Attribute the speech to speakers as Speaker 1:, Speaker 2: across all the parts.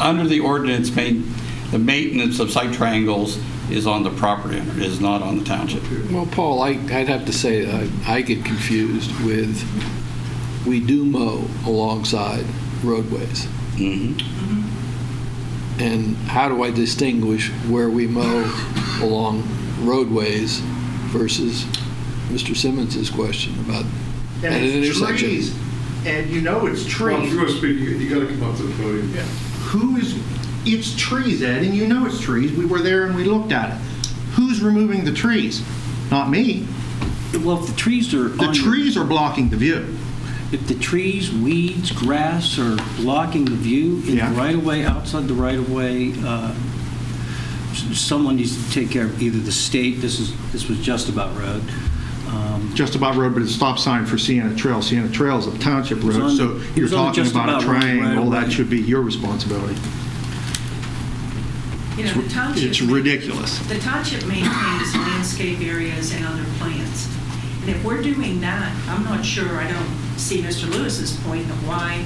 Speaker 1: under the ordinance, main- the maintenance of site triangles is on the property owner, is not on the township.
Speaker 2: Well, Paul, I, I'd have to say, uh, I get confused with, we do mow alongside roadways.
Speaker 1: Mhm.
Speaker 2: And how do I distinguish where we mow along roadways versus Mr. Simmons's question about, At an
Speaker 3: And it's
Speaker 2: intersection.
Speaker 3: trees. And you know it's
Speaker 4: Well, if
Speaker 3: trees.
Speaker 4: you're going to speak, you, you got to come up to the podium.
Speaker 3: Who is, it's trees, Ed, and you know it's trees. We were there and we looked at it. Who's removing the trees? Not me.
Speaker 5: Well, if the trees are
Speaker 3: The
Speaker 5: on your-
Speaker 3: trees are blocking the view.
Speaker 5: if the trees, weeds, grass are blocking the view in
Speaker 3: Yeah.
Speaker 5: the right of way, outside the right of way, uh, s- someone needs to take care of either the state. This is this was just about road. Um,
Speaker 3: Just about road, but it's a stop sign for Sienna Trail. Sienna Trail is a township
Speaker 5: was
Speaker 3: road,
Speaker 5: on-
Speaker 3: so
Speaker 5: it
Speaker 3: you're
Speaker 5: was on
Speaker 3: talking
Speaker 5: just
Speaker 3: about a
Speaker 5: about right
Speaker 3: triangle.
Speaker 5: away.
Speaker 3: That should be your responsibility.
Speaker 6: You know, the township.
Speaker 3: It's ridiculous.
Speaker 6: The township maintains landscape areas and other plants. And if we're doing that, I'm not sure, I don't see Mr. Lewis's point of why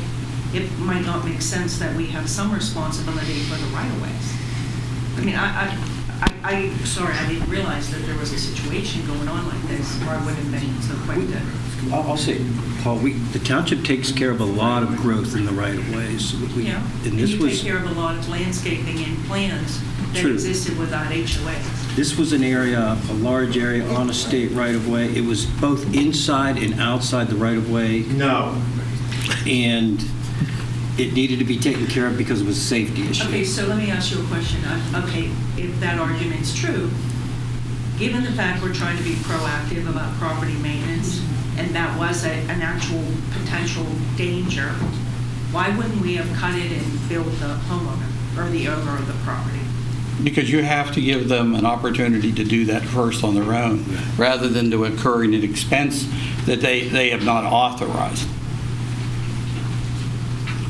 Speaker 6: it might not make sense that we have some responsibility for the right-of-ways. I mean, I, I- I, I, sorry, I didn't realize that there was a situation going on like this, or I would have been so quick to.
Speaker 5: I'll, I'll say, Paul, we, the township takes care of a lot of growth in the right of ways. We-
Speaker 6: Yeah, and
Speaker 5: And this
Speaker 6: you take
Speaker 5: was
Speaker 6: care of a lot of landscaping and plans that
Speaker 5: True.
Speaker 6: existed without HOAs.
Speaker 5: This was an area, a large area on a state right-of-way. It was both inside and outside the right-of-way,
Speaker 3: No.
Speaker 5: and it needed to be taken care of because it was a safety issue.
Speaker 6: Okay, so let me ask you a question. Uh, Okay, if that argument's true, given the fact we're trying to be proactive about property maintenance, and that was a- an actual potential danger, why wouldn't we have cut it and billed the homeowner or the owner of the property?
Speaker 1: Because you have to give them an opportunity to do that first on their own, rather than to incurring an expense that they, they have not authorized.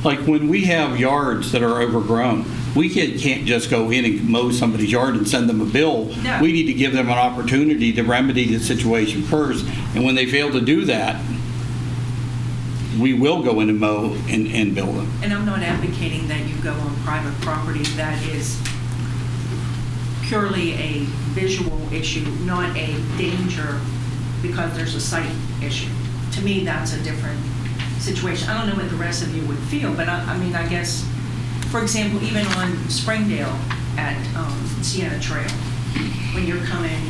Speaker 1: Like when we have yards that are overgrown, we can't can't just go in and mow somebody's yard and send them a bill.
Speaker 6: No.
Speaker 1: We need to give them an opportunity to remedy the situation first, and when they fail to do that, we will go in and mow and, and bill them.
Speaker 6: And I'm not advocating that you go on private property, that is purely a visual issue, not a danger because there's a sight issue. To me, that's a different situation. I don't know what the rest of you would feel, but I, I mean, I guess, for example, even on Springdale at um, Sienna Trail, when you're coming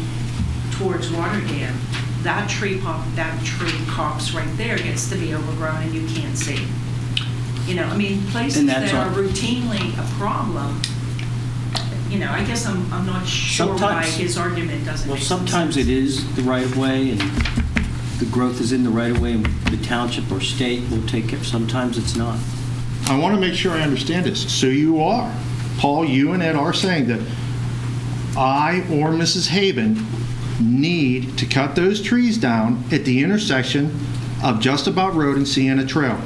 Speaker 6: towards Waterdam, that tree pop, that tree copse right there gets to be overgrown and you can't see. You know, I mean, places
Speaker 5: And that's
Speaker 6: that are
Speaker 5: on-
Speaker 6: routinely a problem, you know, I guess I'm, I'm not sure why
Speaker 5: Sometimes-
Speaker 6: his argument doesn't
Speaker 5: Well,
Speaker 6: make some
Speaker 5: sometimes it
Speaker 6: sense.
Speaker 5: is the right-of-way, and the growth is in the right-of-way, and the township or state will take care. Sometimes it's not.
Speaker 3: I want to make sure I understand this. So you are, Paul, you and Ed are saying that I or Mrs. Haven need to cut those trees down at the intersection of Just About Road and Sienna Trail.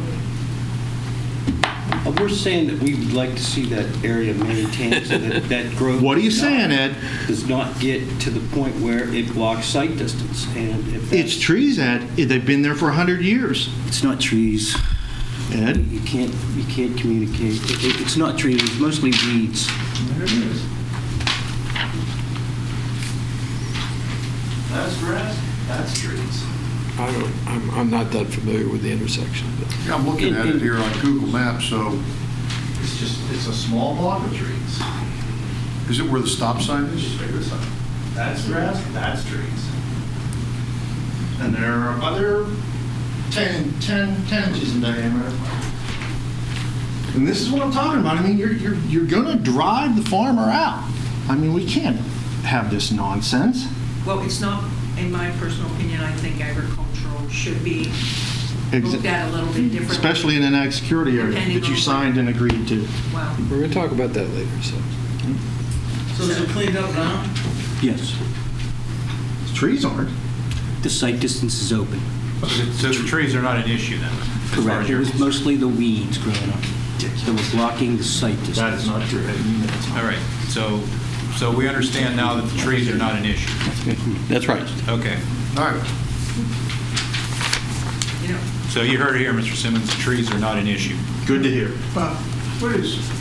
Speaker 5: Uh, We're saying that we would like to see that area maintained, so that that growth...
Speaker 3: What are you
Speaker 5: does not-
Speaker 3: saying, Ed?
Speaker 5: Does not get to the point where it blocks sight distance, and if that's...
Speaker 3: It's trees, Ed. They've been there for 100 years,
Speaker 5: It's not trees.
Speaker 3: Ed.
Speaker 5: You can't, you can't communicate. It- it- It's not trees, it's mostly weeds.
Speaker 4: There it is. That's grass, that's trees.
Speaker 2: I don't, I'm, I'm not that familiar with the intersection, but
Speaker 4: Yeah, I'm looking at it here on Google Maps, so
Speaker 7: It's just, it's a small block of trees.
Speaker 4: is it where the stop sign is?
Speaker 7: That's grass, that's trees. And there are other 10, 10, 10 inches in diameter.
Speaker 3: And this is what I'm talking about. I mean, you're, you're, you're going to drive the farmer out. I mean, we can't have this nonsense.
Speaker 6: Well, it's not, in my personal opinion, I think agricultural should be looked at a little bit differently.
Speaker 3: Especially in an ag security area
Speaker 6: Depending
Speaker 3: that you
Speaker 6: on-
Speaker 3: signed and agreed to.
Speaker 6: Wow.
Speaker 2: we're going to talk about that later, so.
Speaker 6: So is it
Speaker 7: cleaned up now?
Speaker 5: Yes.
Speaker 3: Trees aren't.
Speaker 5: The sight distance is open.
Speaker 7: So the trees are not an issue then? as far as
Speaker 5: It
Speaker 7: you're
Speaker 5: was
Speaker 7: concerned?
Speaker 5: mostly the weeds growing up that were blocking the sight distance.
Speaker 7: That is not true. All right, so, so we understand now that the trees are not an issue.
Speaker 1: That's right.
Speaker 7: Okay,
Speaker 4: All right.
Speaker 6: You know,
Speaker 7: so you heard it here, Mr. Simmons, the trees are not an issue.
Speaker 3: Good to hear.
Speaker 4: Bob, what is